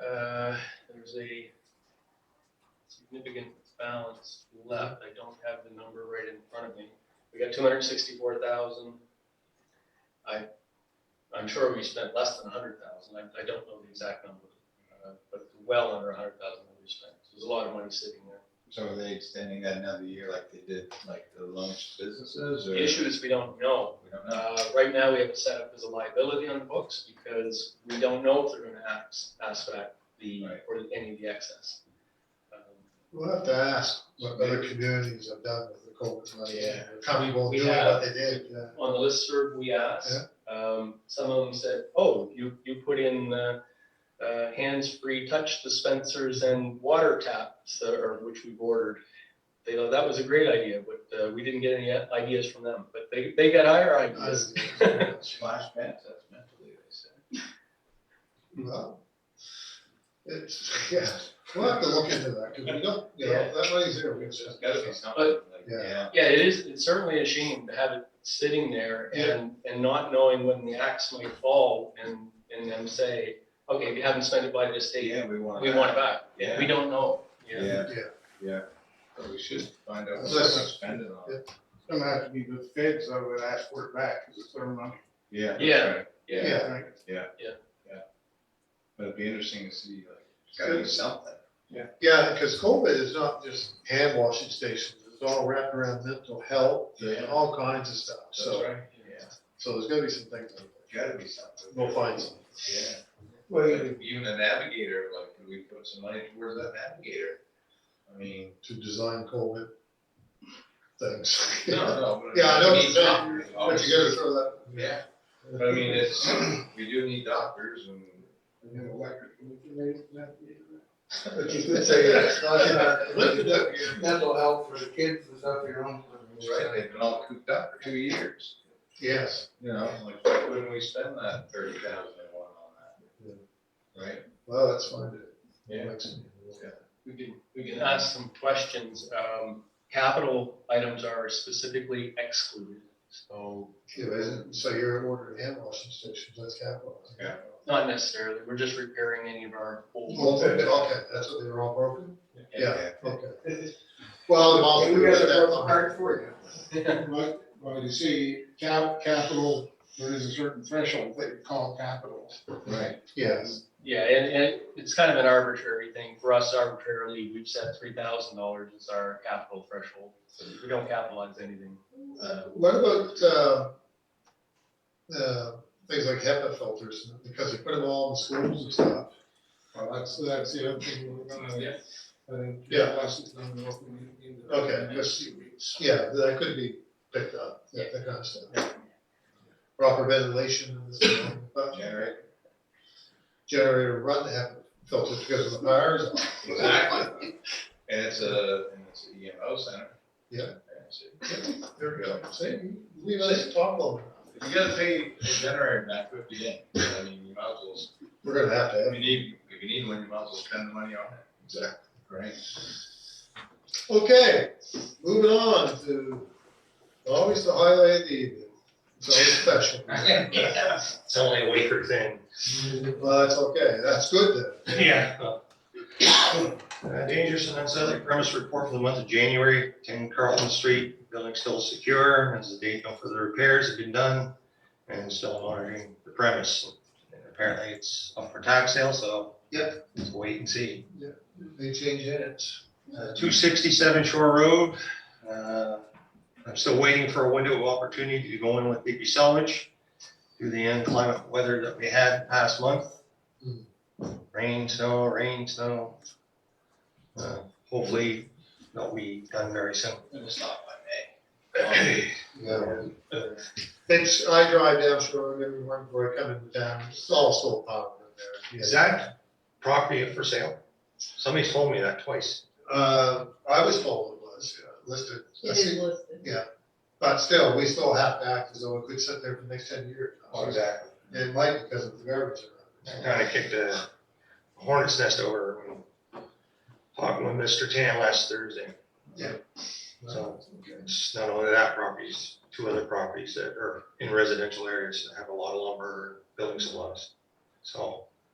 Uh, significant balance left. I don't have the number right in front of me. We got two hundred sixty-four thousand. I, I'm sure we spent less than a hundred thousand. I, I don't know the exact number, uh, but well under a hundred thousand that we spent. So There's a lot of money sitting there. So are they extending that another year like they did, like the loans to businesses or? The issue is we don't know. We don't know. Uh, right now, we have it set up as a liability on the books because we don't know if they're gonna ask, ask back the, Right. or any of the excess. Um, We'll have to ask what other communities have done with the COVID money. Yeah. Probably won't We tell you have. what they did, yeah. on the listserv, we asked, um, some of them said, oh, you, you put in, uh, uh, hands-free touch dispensers and water taps, uh, or which we've ordered. They know that was a great idea, but, uh, we didn't get any ideas from them, but they, they got higher ideas. Splash pads, that's mentally, they said. Well, It's, yeah, we'll have to look into that, because we don't, you know, that money's there, we So There's just gotta be something like, yeah. Yeah, it is, it's certainly a shame to have it sitting there and, and not knowing when the axe might fall and, and them say, okay, if you haven't spent it by this date, Yeah, we want. we that. want it back. Yeah. We don't know. Yeah, Yeah, yeah. But we should find out what That's we're us. spending on. it. it's gonna have to be the feds, I would ask for it back, because it's their money. Yeah. that's Yeah. right. Yeah. Yeah. But it'd be interesting to see, like, it's gotta be something. Yeah, because COVID is not just hand washing stations, it's all wrapped around mental health and Yeah. all kinds of stuff, That's so, right. Yeah, so there's gonna be some things. like that. gotta be something. We'll find some. Yeah. Like, Even a navigator, like, could we put some money towards that navigator? I mean. To design COVID things. No, no. but- Yeah, I know, We it's need not- doctors, But you gotta obviously. throw that. Yeah, but I mean, it's, we do need doctors and. But you could say that's not in our- mental health for the kids is up your own. Right, they've been all cooped up for two years, Yes, you know, like, why wouldn't we spend that thirty thousand and one on that? Right? well, that's fine. Yeah. We can, we can ask some questions. Um, capital items are specifically excluded, so Yeah, isn't- so you're ordering hand washing stations, that's capital. Yeah. not necessarily, we're just repairing any of our old. Okay, okay, that's what they were all broken? Yeah. Okay. Well, the mall. We got a broken heart for you. But, but you see, cap, capital, there is a certain threshold that you call capital. Right. Yes, Yeah, and, and it's kind of an arbitrary thing. For us arbitrarily, we've set three thousand dollars as our capital threshold. So we don't capitalize anything. Uh, what about, uh, uh, things like HEPA filters, because they put them all in schools and stuff? Well, that's, that's the other thing we're gonna, uh, Yeah. discuss it on the open meeting. Okay, In the yes. next few weeks. Yeah, that could be picked up, that that kind of stuff. Proper ventilation and this and that, but Generate. generator run the HEPA filters because of the fires. Exactly. And it's a, and it's an EMO center. Yeah. And it's- There we go. See, we let's talk about, If you gotta pay a generator back fifty yen, I mean, you might as well, we're gonna have to have if you need, if you need one, you might as well spend the money on it. Exactly. Right? Okay, moving on to always the highlight of the evening. It's always special. It's only a week or thing. Well, that's okay. That's good Yeah. Uh, Dangerous and unsettling premise report for the month of January, ten Carlton Street, building still secure, as the date, no further repairs have been done, and still monitoring the premise. And Apparently it's up for tax sale, so. Yep. Wait and see. then. They change Uh, it. Two sixty-seven Shore Road, uh, I'm still waiting for a window of opportunity to go in with BP salvage through the inclement weather that we had past month. Hmm. Rain, snow, rain, snow. Uh, Hopefully, that'll be done very soon. And it's not by May. Yeah. It's, I drive down Shore Road every morning before I come into town. It's all solar power in there. Is that property up for sale? Somebody's told me that twice. Uh, I was told it was uh, listed. It is listed. But still, we still have to act as though it could sit there for the next ten years. exactly. It might because of the garbage. around it. Kind of kicked a hornet's nest over when talking with Mr. Tan last Thursday. So it's not only that properties, two other properties that are in residential areas that have a lot of lumber, building supplies. So